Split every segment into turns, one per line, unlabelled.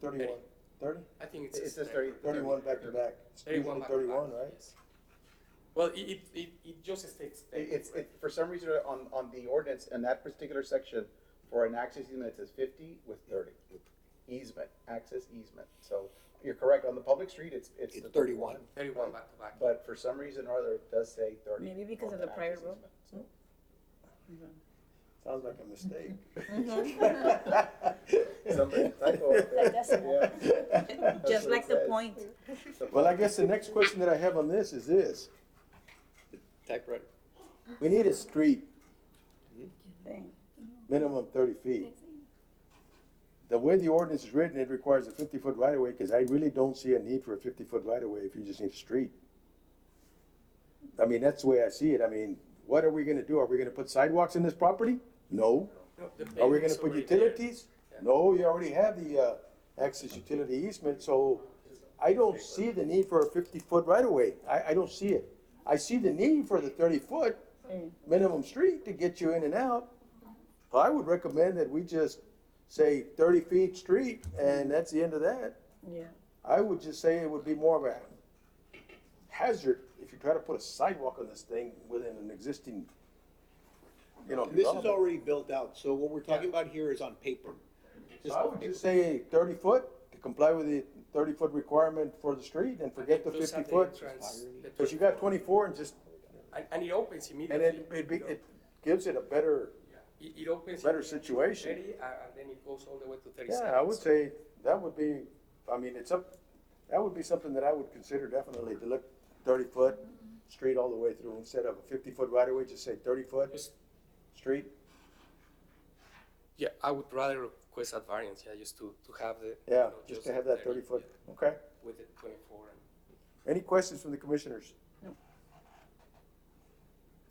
Thirty-one, thirty?
I think it's.
It
just
says thirty.
Thirty-one back to back. It's usually
Thirty-one. back to
Thirty-one,
back,
right?
yes. Well, it, it, it, it just states.
It- It's,
31.
it, for some reason, on, on the ordinance, in that particular section, for an access easement, it says fifty with thirty. Easement, access easement, so you're correct, on the public street, it's, it's.
It's
the
31.
Thirty-one back to back.
But for some reason or other, it does say thirty.
Maybe because
on
of the prior
access
rule.
easement, so.
Sounds like a mistake.
Somebody typo up there.
Mm-hmm. Like decimal.
Yeah. That's
Just
what
like
it
the
says.
point.
The
Well, I guess the next question that I have on this is this.
Typewriter.
We need a street
thing.
minimum thirty feet. The way the ordinance is written, it requires a fifty-foot right-of-way, because I really don't see a need for a fifty-foot right-of-way if you just need a street. I mean, that's the way I see it. I mean, what are we gonna do? Are we gonna put sidewalks in this property? No.
No, the
Are we gonna
pavement's
put
already there.
utilities? No, you already have the, uh, access utility easement, so I don't see the need for a fifty-foot right-of-way. I, I don't see it. I see the need for the thirty-foot minimum street to get you in and out. I would recommend that we just say thirty feet street, and that's the end of that.
Yeah.
I would just say it would be more of a hazard if you try to put a sidewalk on this thing within an existing, you know,
This is
development.
already built out, so what we're talking about here is on paper.
So I would just say thirty foot to comply with the thirty foot requirement for the street and forget the
Those are
fifty foot.
entrance, the
Cause you got
24.
twenty-four and just,
And, and it opens
and
immediately.
it, it, be-
you know.
it gives it a better,
Yeah. It, it opens.
better
immediately to
situation.
30, uh, and then it goes all the way to
yeah,
thirty-seven.
I would
so-
say that would be, I mean, it's up, that would be something that I would consider definitely to look thirty foot street all the way through instead of a fifty foot right of way, just say thirty foot
Just-
street.
Yeah, I would rather request that variance, yeah, just to, to have the. you
Yeah,
know,
just to have that thirty foot,
yeah,
okay.
With the twenty-four and.
Any questions from the commissioners?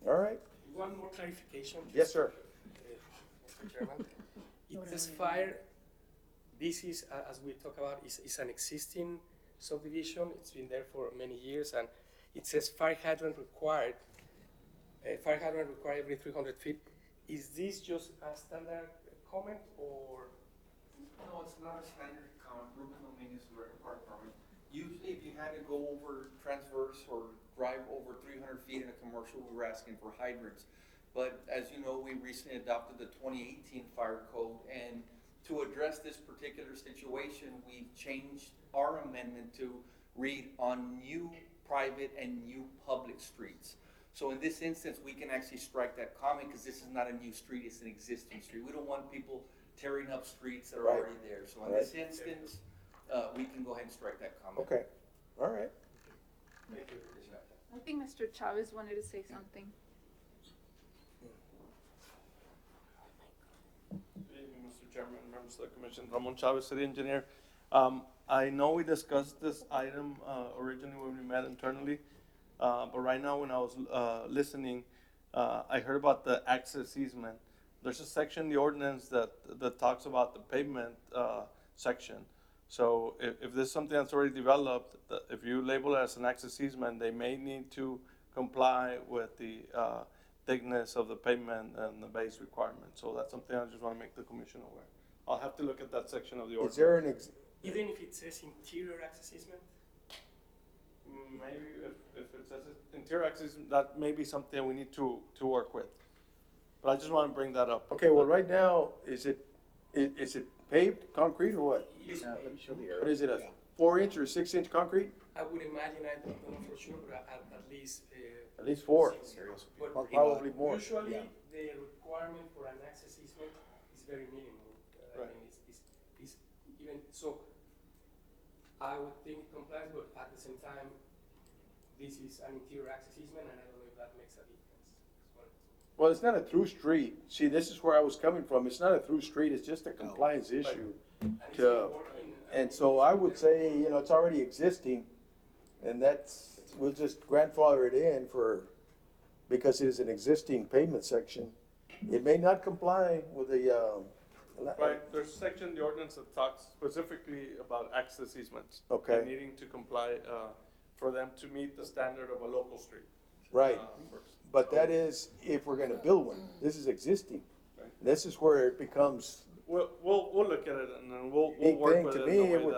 All right,
One more clarification. Uh,
yes, sir.
Mr. Chairman. It says fire, this is, uh, as we talk about, is, is an existing subdivision, it's been there for many years, and it says fire hydrant required, uh, fire hydrant required every three hundred feet. Is this just a standard comment, or,
No, it's not a standard count, Rubin Dominguez, we're in park permit. Usually if you had to go over transverse or drive over three hundred feet in a commercial, we were asking for hydrants. But as you know, we recently adopted the twenty eighteen fire code and to address this particular situation, we've changed our amendment to read on new private and new public streets. So in this instance, we can actually strike that comment because this is not a new street, it's an existing street. We don't want people tearing up streets that are
Right.
already there. So in this instance, uh, we can go ahead and strike that comment.
Okay, all right.
I think Mr. Chavez wanted to say something.
Good evening, Mr. Chairman, members of the commission, Ramon Chavez, city engineer. Um, I know we discussed this item, uh, originally when we met internally, uh, but right now when I was, uh, listening, uh, I heard about the access easement. There's a section in the ordinance that, that talks about the pavement, uh, section. So if, if there's something that's already developed, that if you label it as an access easement, they may need to comply with the, uh, thickness of the pavement and the base requirement. So that's something I just wanna make the commission aware. I'll have to look at that section of the
Is
ordinance.
there an ex,
even if it says interior access easement?
Mm, Maybe if, if it says it- interior access, that may be something we need to, to work with. But I just wanna bring that up.
Okay, well, right now, is it, i- is it paved concrete or what?
Uh, Let me show the
What
arrow.
is it, a four inch or six inch concrete?
I would imagine, I don't know for sure, but at, at least, uh,
At least four.
But
Or probably more,
Usually,
yeah.
the requirement for an access easement is very minimal. Uh, I
Right.
mean, it's, it's, it's even, so I would think it complies, but at the same time, this is an interior access easement, and I don't know if that makes a difference. Well,
Well, it's not a through street. See, this is where I was coming from. It's not a through street, it's just a compliance issue.
And it's
Yeah.
been working, uh,
And so I would say, you know, it's already existing, and that's, we'll just grandfather it in for, because it is an existing pavement section. It may not comply with the, um. la-
Right, there's a section in the ordinance that talks specifically about access easements. and
Okay.
Needing to comply, uh, for them to meet the standard of a local street.
Right.
uh, first.
But that is if we're gonna build one. This is existing. This is where it becomes
We'll, we'll, we'll look at it and then we'll, we'll
Big
work
thing
with
to
it
me,
in a
it
way
would
that.